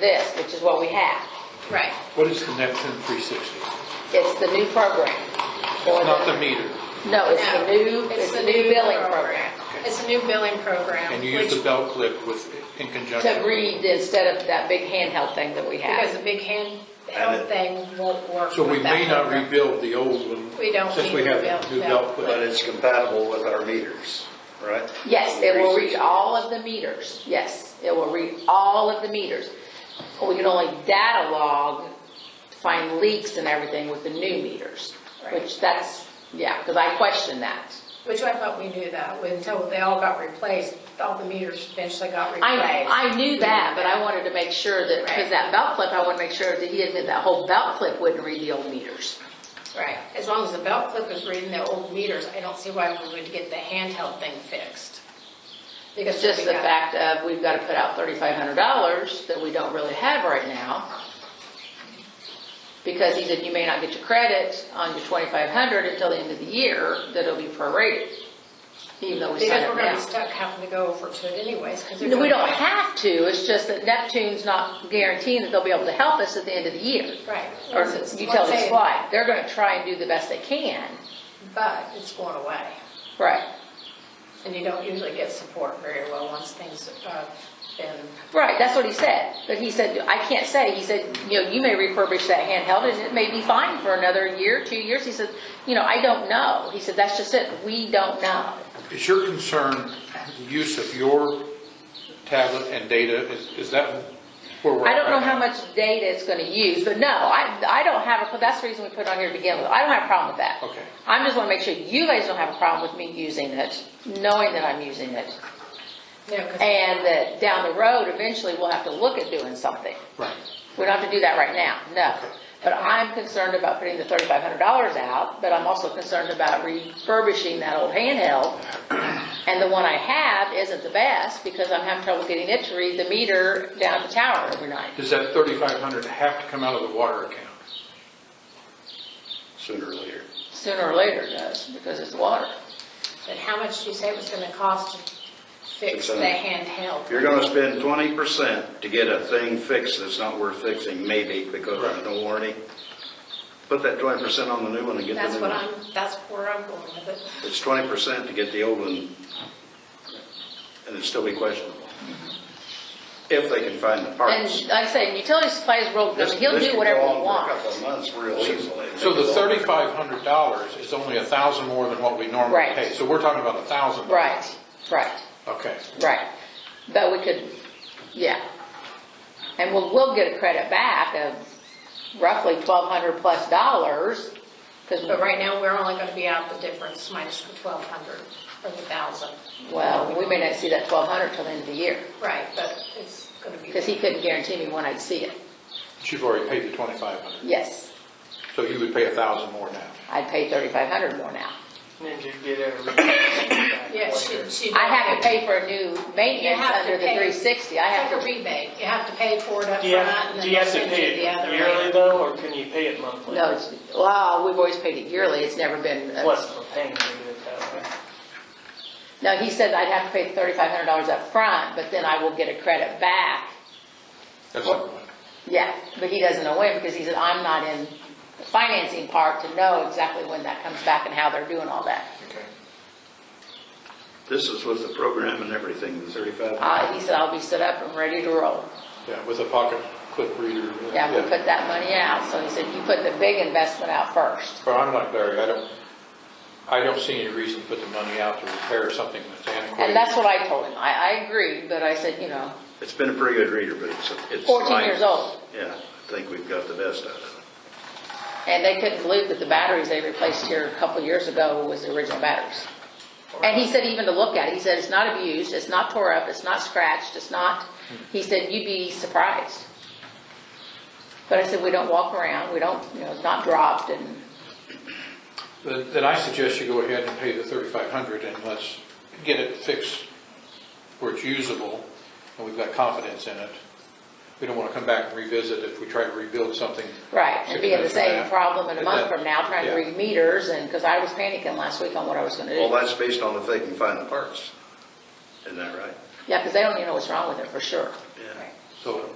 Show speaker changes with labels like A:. A: this, which is what we have.
B: Right.
C: What is Connect 10360?
A: It's the new program.
C: Not the meter,
A: No, it's
B: No,
A: the new, it's the new billing program.
B: It's the new billing program.
C: and you use the
B: which-
C: belt clip with, in conjunction.
A: To read instead of that big handheld thing that we
B: Because
A: have.
B: the big hand,
D: And
B: held
D: it-
B: thing won't work.
C: So we
B: with that
C: may not
B: program.
C: rebuild the old one.
B: We don't
C: Since
B: need
C: we
B: to
C: have
B: rebuild
C: the new
B: that.
C: belt
D: But
C: clip.
D: it's compatible with our meters, right?
A: Yes, it will reach all of the meters. Yes, it will read all of the meters. We can only data log, find leaks and everything with the new meters, which that's, yeah, because I question that.
B: Which I thought we knew that, until they all got replaced, all the meters eventually got
A: I,
B: replaced.
A: I knew that, but I wanted to make sure that, because that belt clip, I wanted to make sure that he admitted that whole belt clip wouldn't read the old meters.
B: Right, as long as the belt clip is reading the old meters, I don't see why we would get the handheld thing fixed. Because
A: It's just
B: we
A: the
B: got-
A: fact of, we've got to put out thirty-five hundred dollars that we don't really have right now. Because he said you may not get your credit on your twenty-five hundred until the end of the year, that'll be prorated, even though we signed
B: Because we're
A: up
B: gonna be
A: now.
B: stuck having to go over to it anyways, because.
A: No, We don't have to, it's just that Neptune's not guaranteeing that they'll be able to help us at the end of the year.
B: Right.
A: Or
B: Once it's- once
A: utilities
B: they-
A: fly, they're gonna try and do the best they can.
B: But it's going away,
A: Right.
B: and you don't usually get support very well once things have been
A: Right, that's what he said. But he said, I can't say, he said, you know, you may refurbish that handheld and it may be fine for another year, two years. He said, you know, I don't know. He said, that's just it, we don't know.
C: Is your concern the use of your tablet and data? Is, is that where we're at?
A: I don't know
C: right
A: how
C: now?
A: much data it's gonna use, but no, I, I don't have a, that's the reason we put it on here to begin with. I don't have a problem with that.
C: Okay.
A: I'm just wanna make sure you guys don't have a problem with me using it, knowing that I'm using it.
B: Yeah, 'cause-
A: And that down the road, eventually we'll have to look at doing something.
C: Right.
A: We don't have to do that right now, no. But I'm concerned about putting the thirty-five hundred dollars out, but I'm also concerned about refurbishing that old handheld. And the one I have isn't the best because I'm having trouble getting it to read the meter down the tower every night.
C: Does that 3,500 have to come out of the water account?
D: Sooner or later.
A: Sooner or later it does because it's water.
B: but how much do you say it was gonna cost to fix the
D: Six hundred.
B: handheld?
D: You're gonna spend twenty percent to get a thing fixed that's not worth fixing, maybe, because there's no warranty. Put that twenty percent on the new one and get
B: That's
D: the new
B: what
D: one.
B: I'm, that's where I'm going with it.
D: It's twenty percent to get the old one, and it'd still be questionable. If they can find the
A: And
D: parts.
A: like I say, utility supplies world,
D: This-
A: he'll
D: this
A: do
D: could
A: whatever
D: go
A: he
D: on for A couple of
A: wants.
D: months real easily.
C: So the $3,500 is only 1,000 more than what we normally
A: Right.
C: pay. So we're talking about 1,000.
A: Right, right.
C: Okay.
A: Right, but we could, yeah. And we'll, we'll get a credit back of roughly twelve hundred plus dollars, because,
B: But right now, we're only gonna be out the difference minus the twelve hundred or the thousand.
A: well, we may not see that twelve hundred till the end of the year,
B: Right, but it's gonna be.
A: because he couldn't guarantee me when I'd see it.
C: But you've already paid the 2,500.
A: Yes,
C: So you would pay 1,000 more now.
A: I'd pay thirty-five hundred more now.
E: Did you get a rebate?
B: Yeah, she, she.
A: I have to pay for a new
B: You
A: maintenance
B: have to
A: under the
B: pay-
A: three sixty, I have
B: It's like a
A: to,
B: rebate. You have to pay for it up
E: Do you
B: front and
E: have,
B: then
E: do you have to
B: send you
E: pay
B: the other
E: it
B: way.
E: yearly though, or can you pay it monthly?
A: no, it's, well, we've always paid it yearly, it's never been. uh, a-
E: Plus the payment, you do it that way.
A: No, he said I'd have to pay thirty-five hundred dollars up front, but then I will get a credit back
C: That's not what.
A: Yeah, but he doesn't know when, because he said, I'm not in the financing part to know exactly when that comes back and how they're doing all that.
C: Okay.
D: This is with the program and everything, the thirty-five.
A: Uh, he said, I'll be set up and ready to roll.
C: Yeah, with a pocket clip reader.
A: Yeah, we put that money out, so he said, you put the big investment out first.
C: But I'm like Larry, I don't, I don't see any reason to put the money out to repair something that's antiquated.
A: And that's what I told him, I, I agreed, but I said, you know,
D: It's been a pretty good reader, but it's, it's.
A: 14
D: light.
A: years old.
D: Yeah, I think we've got the best out of
A: and they couldn't believe that the batteries they replaced here a couple years ago was the original batteries. And he said even to look at it, he said, it's not abused, it's not tore up, it's not scratched, it's not, he said, you'd be surprised. But I said, we don't walk around, we don't, you know, it's not dropped and,
C: Then then I suggest you go ahead and pay the thirty-five hundred and let's get it fixed where it's usable and we've got confidence in it. We don't want to come back and revisit if we try to rebuild something.
A: right, and
C: six
A: be in the
C: months from
A: same
C: now.
A: problem in a
C: And
A: month
C: that-
A: from now, trying to
C: yeah.
A: read meters and, because I was panicking last week on what I was gonna
D: it. Well,
A: do.
D: that's based on if they can find the parts. Isn't that right?
A: Yeah, because they don't even know what's wrong with it for sure.
D: Yeah.
C: So